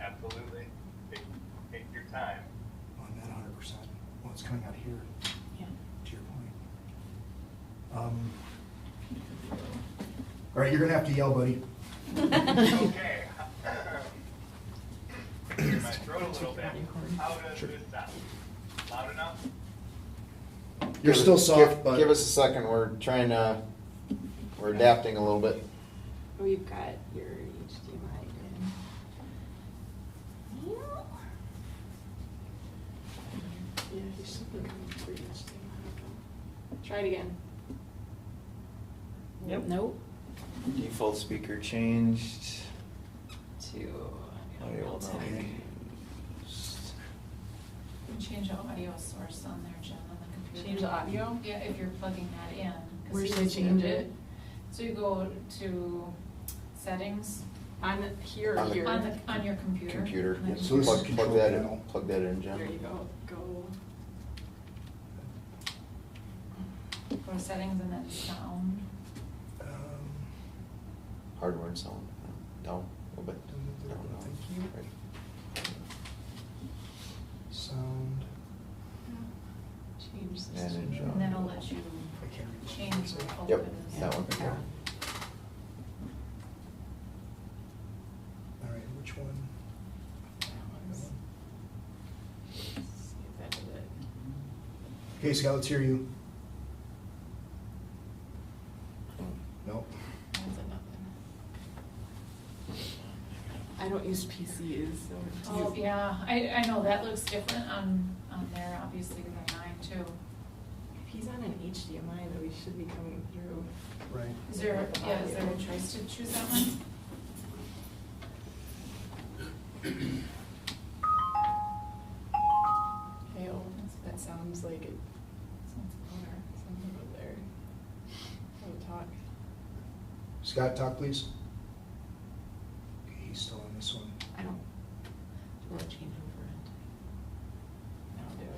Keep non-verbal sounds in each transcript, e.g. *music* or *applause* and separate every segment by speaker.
Speaker 1: Absolutely. Take, take your
Speaker 2: *laughs*
Speaker 1: time.
Speaker 3: on that hundred percent, well, it's coming out here,
Speaker 4: Yeah.
Speaker 3: to your point. Um, All right, you're gonna have to yell, buddy.
Speaker 1: Okay. Clear my throat a little bit. How does this sound? Loud enough?
Speaker 3: You're
Speaker 5: Give-
Speaker 3: still soft,
Speaker 5: give-
Speaker 3: but.
Speaker 5: Give us a second, we're trying to, we're adapting a little bit.
Speaker 6: We've got your HDMI. in. Yeah, you should be coming through HDMI. Try it again.
Speaker 4: Nope. Nope.
Speaker 5: Default speaker changed. Oh,
Speaker 6: To.
Speaker 5: Audio will not
Speaker 6: tech.
Speaker 5: be used.
Speaker 7: Change the audio source on there, Jen, on the computer.
Speaker 4: Change the audio?
Speaker 7: Yeah, if you're plugging that in. 'cause
Speaker 6: Where
Speaker 7: you
Speaker 6: should I
Speaker 7: can
Speaker 6: change it?
Speaker 7: So you go to settings
Speaker 6: On the- here or
Speaker 5: On the-
Speaker 6: here?
Speaker 7: on the, on your computer.
Speaker 5: Computer,
Speaker 7: and then
Speaker 3: So this is
Speaker 5: plug, plug
Speaker 3: control
Speaker 5: that
Speaker 3: panel.
Speaker 5: in, plug that in,
Speaker 6: There you
Speaker 5: Jen.
Speaker 6: go, go.
Speaker 7: Go to settings and then sound.
Speaker 3: Um,
Speaker 5: Hardware and sound, down a little bit. Down, down.
Speaker 3: Thank you.
Speaker 5: Right.
Speaker 3: Sound.
Speaker 6: Change this.
Speaker 5: And
Speaker 3: Manage.
Speaker 6: to-
Speaker 7: And then it'll let you
Speaker 3: I can't read.
Speaker 7: change the whole.
Speaker 5: Yep, that one, yeah.
Speaker 3: All right, which one?
Speaker 6: That one's- see if that did it.
Speaker 3: Okay, Scott, let's hear you.
Speaker 5: Mm.
Speaker 3: Nope.
Speaker 6: That's a nothing. I don't use PCs, so. it's
Speaker 7: Oh,
Speaker 6: easy.
Speaker 7: yeah, I, I know, that looks different on, on there, obviously, than mine too.
Speaker 6: If he's on an HDMI, though, he should be coming through.
Speaker 3: Right.
Speaker 7: Is there, yeah, is there a choice to choose that one?
Speaker 6: Okay, well, that sounds like it,
Speaker 7: Sounds better.
Speaker 6: sounds about there. Don't talk.
Speaker 3: Scott, talk, please. Okay, he's still on this one.
Speaker 6: I don't, do I change over it?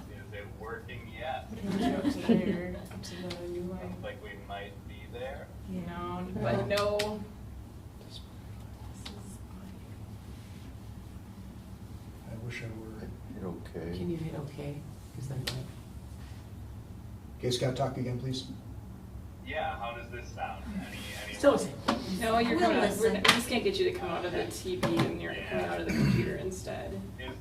Speaker 6: I'll do
Speaker 1: Is it working yet?
Speaker 6: it. Up to there, up to the new line.
Speaker 1: Sounds like we might be there.
Speaker 6: No, but no.
Speaker 3: I wish I were.
Speaker 5: Hit okay.
Speaker 2: Can you hit okay? Is that right?
Speaker 3: Okay, Scott, talk again, please.
Speaker 1: Yeah, how does this sound? Any, any?
Speaker 2: Still the same.
Speaker 6: No, you're
Speaker 4: We'll
Speaker 6: coming, out- we're,
Speaker 4: listen.
Speaker 6: we're just gonna get you to come out of the TV and you're coming out of the computer instead.
Speaker 1: Is,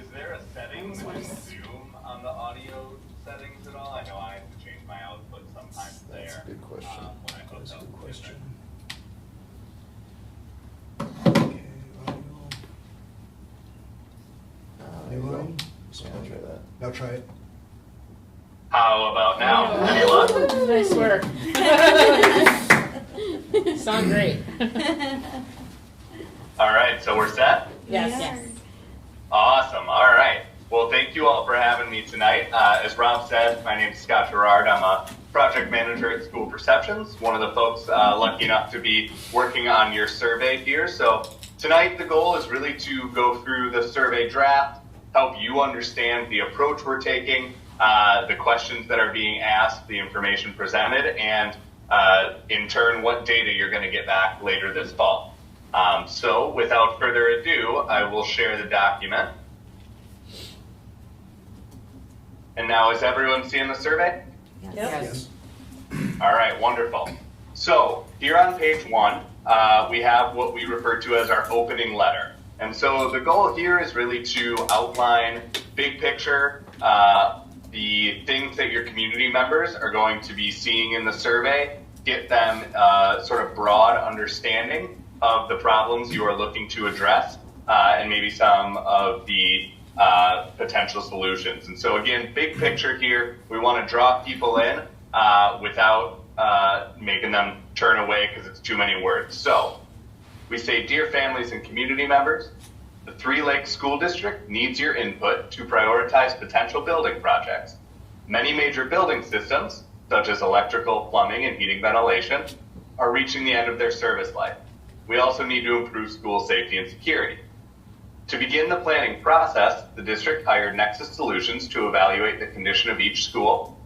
Speaker 1: is there a setting
Speaker 6: Almost
Speaker 1: within
Speaker 6: worse.
Speaker 1: Zoom on the audio settings at all? I know I have to change my output sometimes there.
Speaker 5: That's a good question.
Speaker 1: um, When I hook
Speaker 3: That's a
Speaker 1: up
Speaker 3: good
Speaker 1: to it.
Speaker 3: question. Okay, audio.
Speaker 5: Uh, there you
Speaker 3: New
Speaker 5: go.
Speaker 3: line?
Speaker 5: Yeah, I'll try that.
Speaker 3: Now try it.
Speaker 1: How about now? Any luck?
Speaker 2: *laughs* Nice work. Sound great.
Speaker 1: All right, so we're set?
Speaker 2: Yes.
Speaker 1: Awesome. All right. Well, thank you all for having me tonight. Uh, as Rob said, my name is Scott Gerard. I'm a project manager at School Perceptions, one of the folks uh, lucky enough to be working on your survey here. So, tonight the goal is really to go through the survey draft, help you understand the approach we're taking, uh, the questions that are being asked, the information presented, and uh, in turn, what data you're going to get back later this fall. Um, so, without further ado, I will share the document. And now, is everyone seeing the survey?
Speaker 3: Yes.
Speaker 1: All right, wonderful. So here on page one, uh, we have what we refer to as our opening letter. And so the goal here is really to outline big picture, uh, the things that your community members are going to be seeing in the survey, get them uh, sort of broad understanding of the problems you are looking to address, uh, and maybe some of the uh, potential solutions. And so, again, big picture here, we want to draw people in uh, without uh, making them turn away because it's too many words. So, we say, Dear families and community members, the Three Lakes School District needs your input to prioritize potential building projects. Many major building systems, such as electrical, plumbing, and heating ventilation, are reaching the end of their service life. We also need to improve school safety and security. To begin the planning process, the district hired Nexus Solutions to evaluate the condition of each school